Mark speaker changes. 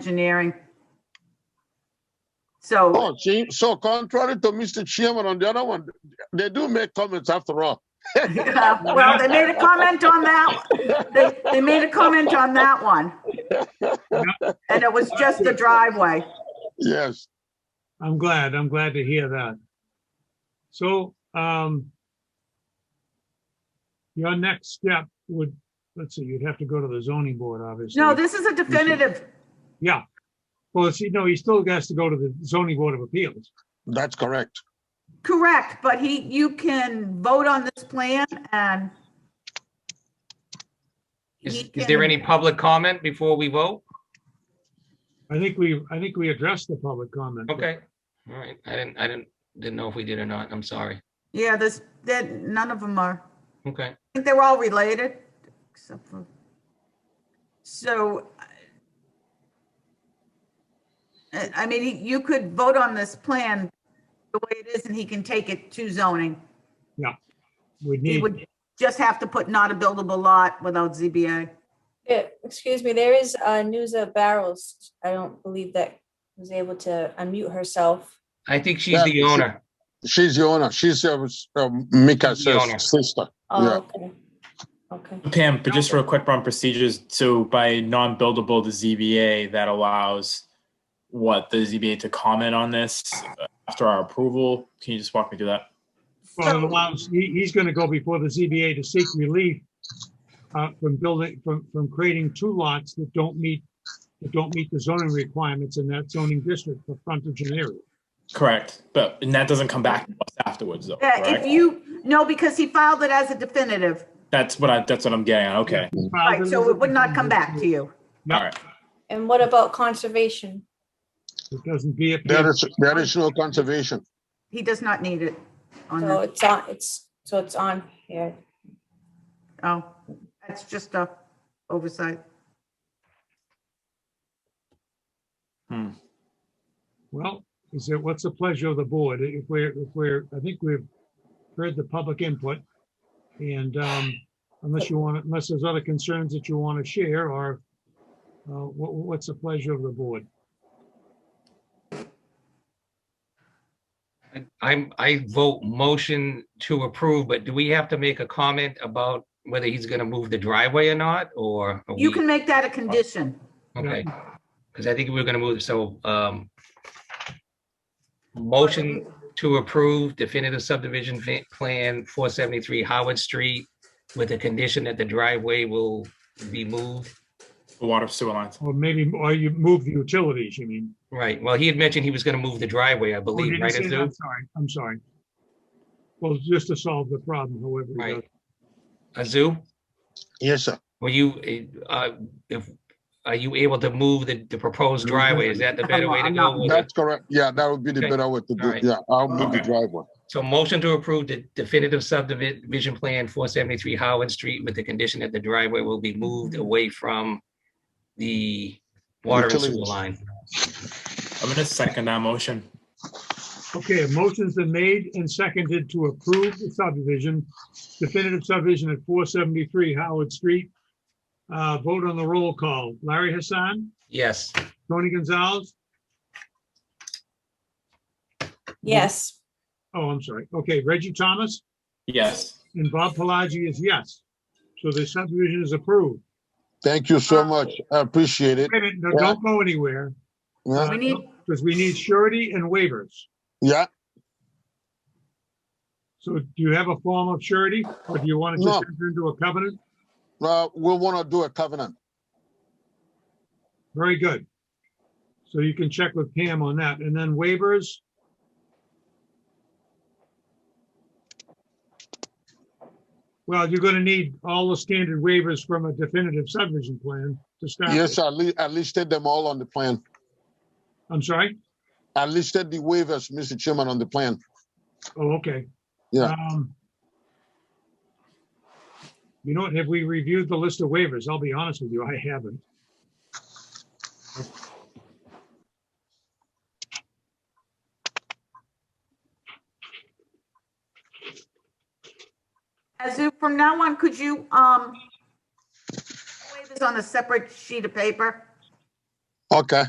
Speaker 1: engineering. So,
Speaker 2: Oh, see, so contrary to Mr. Chairman on the other one, they do make comments after all.
Speaker 1: yeah, well, they made a comment on that. They, they made a comment on that one. And it was just the driveway.
Speaker 2: Yes,
Speaker 3: I'm glad, I'm glad to hear that. So, um, your next step would, let's see, you'd have to go to the zoning board, obviously.
Speaker 1: No, this is a definitive.
Speaker 3: Yeah. Well, see, no, he still has to go to the zoning board of appeals.
Speaker 2: that's correct.
Speaker 1: Correct, but he, you can vote on this plan and.
Speaker 4: Is,
Speaker 1: he
Speaker 4: is there
Speaker 1: can-
Speaker 4: any public comment before we vote?
Speaker 3: I think we, I think we addressed the public comment.
Speaker 4: Okay, all right, I didn't, I didn't, didn't know if we did or not, I'm sorry.
Speaker 1: Yeah, this, that, none of them are,
Speaker 4: Okay,
Speaker 1: I think they're all related, except for. So. uh, I, I mean, he- you could vote on this plan the way it is and he can take it to zoning. He
Speaker 3: We need,
Speaker 1: would just have to put not a buildable lot without ZBA.
Speaker 5: Yeah, excuse me, there is uh Nusa Barrows. I don't believe that was able to unmute herself.
Speaker 4: I think she's the
Speaker 2: Yeah.
Speaker 4: owner.
Speaker 2: She's the owner. She's uh, uh, Mika's
Speaker 4: The
Speaker 2: uh,
Speaker 4: owner.
Speaker 2: sister. Yeah.
Speaker 5: Oh, okay. Okay,
Speaker 6: Pam, but just real quick on procedures, so by non-buildable to ZBA, that allows what, the ZBA to comment on this after our approval? Can you just walk me through that?
Speaker 3: well, it allows, he, he's gonna go before the ZBA to seek relief uh, from building, from, from creating two lots that don't meet, that don't meet the zoning requirements in that zoning district for frontage and area.
Speaker 6: Correct, but, and that doesn't come back to us afterwards though,
Speaker 1: Yeah, if
Speaker 6: correct?
Speaker 1: you, no, because he filed it as a definitive,
Speaker 6: That's what I, that's what I'm getting at, okay.
Speaker 1: right, so it would not come back to you.
Speaker 3: No.
Speaker 6: All right.
Speaker 5: and what about conservation?
Speaker 3: It doesn't be.
Speaker 2: There is, there is no conservation.
Speaker 1: He does not need it on
Speaker 5: So
Speaker 1: the,
Speaker 5: it's on, it's, so it's on here.
Speaker 1: oh, that's just a oversight.
Speaker 3: Well, is it, what's the pleasure of the board? If we're, if we're, I think we've heard the public input. And um, unless you want, unless there's other concerns that you want to share or uh, what, what's the pleasure of the board?
Speaker 4: I- I'm, I vote motion to approve, but do we have to make a comment about whether he's gonna move the driveway or not, or? are
Speaker 1: You
Speaker 4: we-
Speaker 1: can make that a condition.
Speaker 4: Okay, because I think we we're gonna move, so, um, motion to approve definitive subdivision fa- plan four seventy-three Howard Street with the condition that the driveway will be moved.
Speaker 6: The water sewer lines.
Speaker 3: Or maybe, or you move the utilities, you mean?
Speaker 4: Right, well, he had mentioned he was gonna move the driveway, I
Speaker 3: Oh, did
Speaker 4: believe,
Speaker 3: he
Speaker 4: right?
Speaker 3: say that?
Speaker 4: Azu?
Speaker 3: I'm sorry, I'm sorry. Well, just to solve the problem, however. he
Speaker 4: Right.
Speaker 3: does.
Speaker 4: Azu,
Speaker 2: Yes, sir.
Speaker 4: were you, uh, if, are you able to move the, the proposed driveway? Is that the better way to
Speaker 1: I'm
Speaker 4: go?
Speaker 1: not-
Speaker 4: with it?
Speaker 2: That's correct. Yeah, that would be the
Speaker 4: Okay.
Speaker 2: better way to do it.
Speaker 4: Alright.
Speaker 2: Yeah, I'll move the
Speaker 4: Okay.
Speaker 2: driveway.
Speaker 4: So motion to approve the definitive subdivision plan four seventy-three Howard Street with the condition that the driveway will be moved away from the water and sewer
Speaker 2: Utilities.
Speaker 4: line.
Speaker 6: I'm gonna second that motion.
Speaker 3: Okay, a motion's been made and seconded to approve the subdivision, definitive subdivision at four seventy-three Howard Street. Uh, vote on the roll call. Larry Hassan,
Speaker 4: Yes,
Speaker 3: Tony Gonzalez.
Speaker 5: Yes,
Speaker 3: Oh, I'm sorry. Okay, Reggie Thomas
Speaker 6: Yes.
Speaker 3: and Bob Pelagi is yes. So the subdivision is approved.
Speaker 2: Thank you so much. I appreciate it.
Speaker 3: Wait a minute, no, don't go anywhere
Speaker 2: Yeah,
Speaker 1: We need,
Speaker 3: because we need surety and waivers.
Speaker 2: Yeah.
Speaker 3: So do you have a form of surety or do you want to just enter into a covenant?
Speaker 2: Uh, we want to do a covenant.
Speaker 3: Very good. So you can check with Pam on that. And then waivers? Well, you're going to need all the standard waivers from a definitive subdivision plan to start.
Speaker 2: Yes,
Speaker 3: with.
Speaker 2: I li- I listed them all on the plan.
Speaker 3: I'm sorry?
Speaker 2: I listed the waivers, Mr. Chairman, on the plan.
Speaker 3: Oh, okay.
Speaker 2: Yeah.
Speaker 3: Um, You know what? Have we reviewed the list of waivers? I'll be honest with you, I haven't.
Speaker 1: Azu, from now on, could you, um, wave this on a separate sheet of paper?
Speaker 2: Okay.